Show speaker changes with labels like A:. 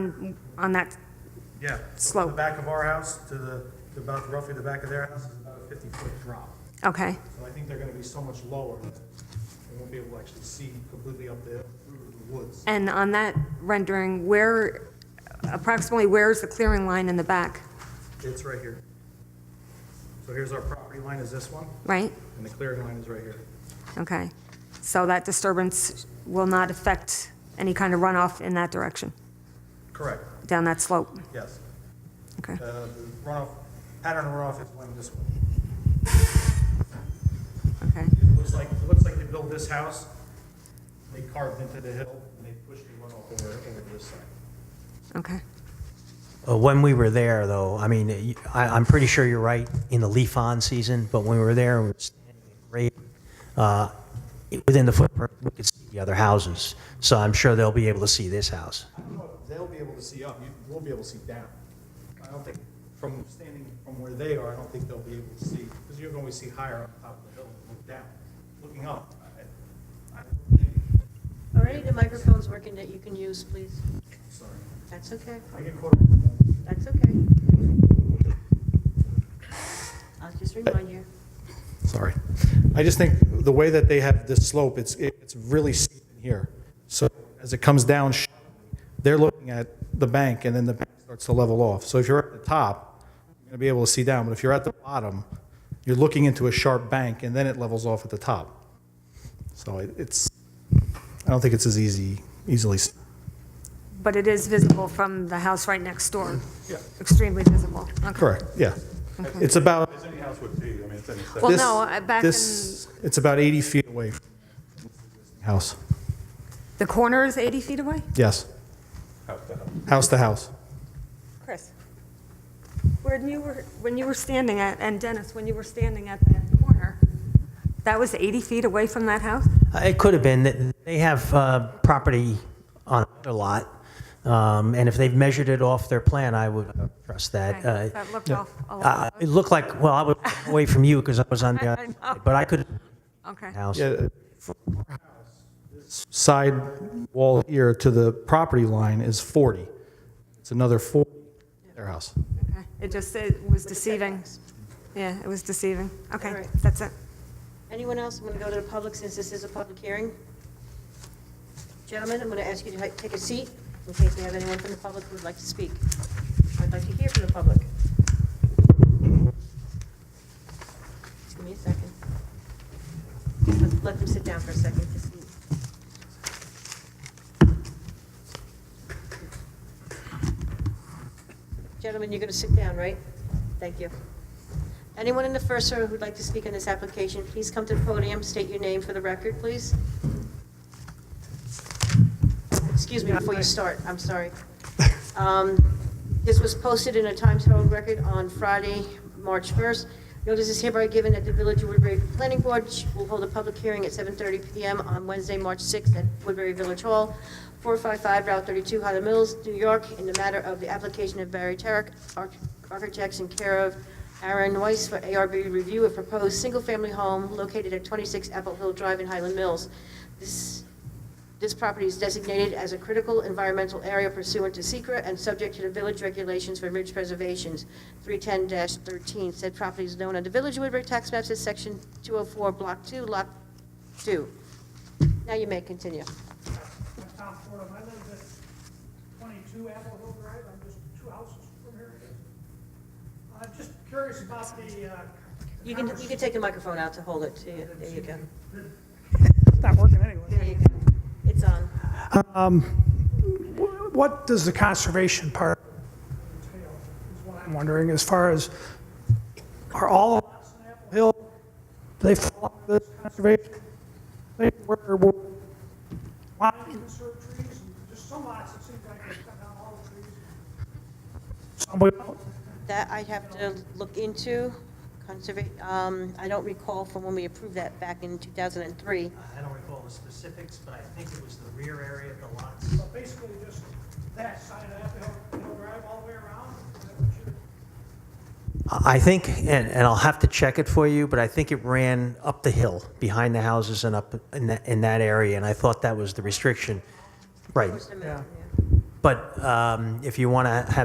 A: on that,
B: Yeah.
A: Slope.
B: From the back of our house to the, to about roughly the back of their house is about a 50-foot drop.
A: okay,
B: So I think they're going to be so much lower, that they won't be able to actually see completely up the the woods.
A: and on that rendering, where, approximately where is the clearing line in the back,
B: It's right here. So here's our property line is this one,
A: right?
B: and the clearing line is right here.
A: Okay, so that disturbance will not affect any kind of runoff in that direction,
B: Correct,
A: down that slope,
B: yes.
A: okay?
B: Uh, The runoff, pattern of runoff is going this way.
A: Okay,
B: It looks like, it looks like they built this house, they carved into the hill, and they pushed the runoff over, over this side.
A: okay,
C: Uh, When we were there, though, I mean, y- I, am pretty sure you're right in the leaf-on season, but when we were there, we were standing in great, uh, it- within the footprint, we could see the other houses. So I'm sure they'll be able to see this house.
B: I don't know if they'll be able to see up, you will be able to see down. I don't think, from standing from where they are, I don't think they'll be able to see, because you're going to see higher on top of the hill, and look down, looking up. I- I don't think-
D: All right, the microphone's working that you can use, please.
B: Sorry,
D: That's okay,
B: I get caught. up.
D: that's okay. I'll just remind you.
B: Sorry. I just think the way that they have this slope, it's, it's really steep in here. So as it comes down, sh- they're looking at the bank, and then the bank starts to level off. So if you're at the top, you're going to be able to see down, but if you're at the bottom, you're looking into a sharp bank, and then it levels off at the top. So it- it's, I don't think it's as easy, easily. s-
A: but it is visible from the house right next door,
B: Yeah.
A: extremely visible, okay.
B: Correct, yeah. It's about,
E: As any house would be, I mean, it's any
A: Well,
B: this,
A: no, I- back in,
B: this, it's about 80 feet away from the house.
A: the corner is 80 feet away?
B: Yes,
E: house to house.
B: house to house.
A: Chris, when you were, when you were standing at, and Dennis, when you were standing at that corner, that was 80 feet away from that house?
C: Uh, It could have been, that they have uh, property on another lot, um, and if they've measured it off their plan, I would uh, trust that.
A: Okay,
C: Uh,
A: That looked off a
C: uh,
A: lot,
C: It looked like, well, I was away from you because I was on the,
A: I
C: other
A: know.
C: side, but I could,
A: okay.
C: house.
B: Yeah, from our house, this Side wall here to the property line is 40. It's another 40, their house.
A: Okay. It just, it was deceiving. Yeah, it was deceiving.
D: All
A: Okay,
D: right.
A: that's it.
D: Anyone else? I'm going to go to the public since this is a public hearing. Gentlemen, I'm going to ask you to hi- take a seat in case we have anyone from the public who would like to speak. I'd like to hear from the public. Just give me a second. Let- Let them sit down for a second. Just- Gentlemen, you're going to sit down, right? Thank you. Anyone in the first row who'd like to speak on this application, please come to the podium, state your name for the record, please. Excuse me before you start, I'm sorry. Um, This was posted in a Times Herald record on Friday, March 1st. Notice is hereby given that the Village of Woodbury Planning Board will hold a public hearing at 7:30 PM on Wednesday, March 6th at Woodbury Village Hall, 455 Route 32, Highland Mills, New York, in the matter of the application of Barry Tarrick Arch- Architects in care of Aaron Weiss for ARB review of proposed single-family home located at 26 Apple Hill Drive in Highland Mills. This this property is designated as a critical environmental area pursuant to secra and subject to the village regulations for ridge preservations, 310-13. Said property is known on the Village of Woodbury tax maps as Section 204, Block 2, Lot 2. Now you may continue.
F: I'm Tom Fordham, I live at 22 Apple Hill Drive, I'm just two houses from here. I'm just curious about the, uh...
D: You can, you can take the microphone out to hold it to you. There you go.
F: It's not working
D: There you
F: anyway.
D: go. It's on.
F: What does the conservation part entail, is what I'm wondering, as far as, are all the lots on Apple Hill, do they fall under this conservation? They were, were, why conserve trees, and just some lots, it seems like they cut down all the trees. Some we don't.
D: That I have to look into, conserva, um, I don't recall from when we approved that back in 2003.
G: I don't recall the specifics, but I think it was the rear area of the lots.
F: So basically just that side of that, they'll, they'll drive all the way around, is that what you
C: I think, and, and I'll have to check it for you, but I think it ran up the hill behind the houses and up in that, in that area, and I thought that was the restriction. Right.
D: Just a minute, yeah.
C: But um, if you want to have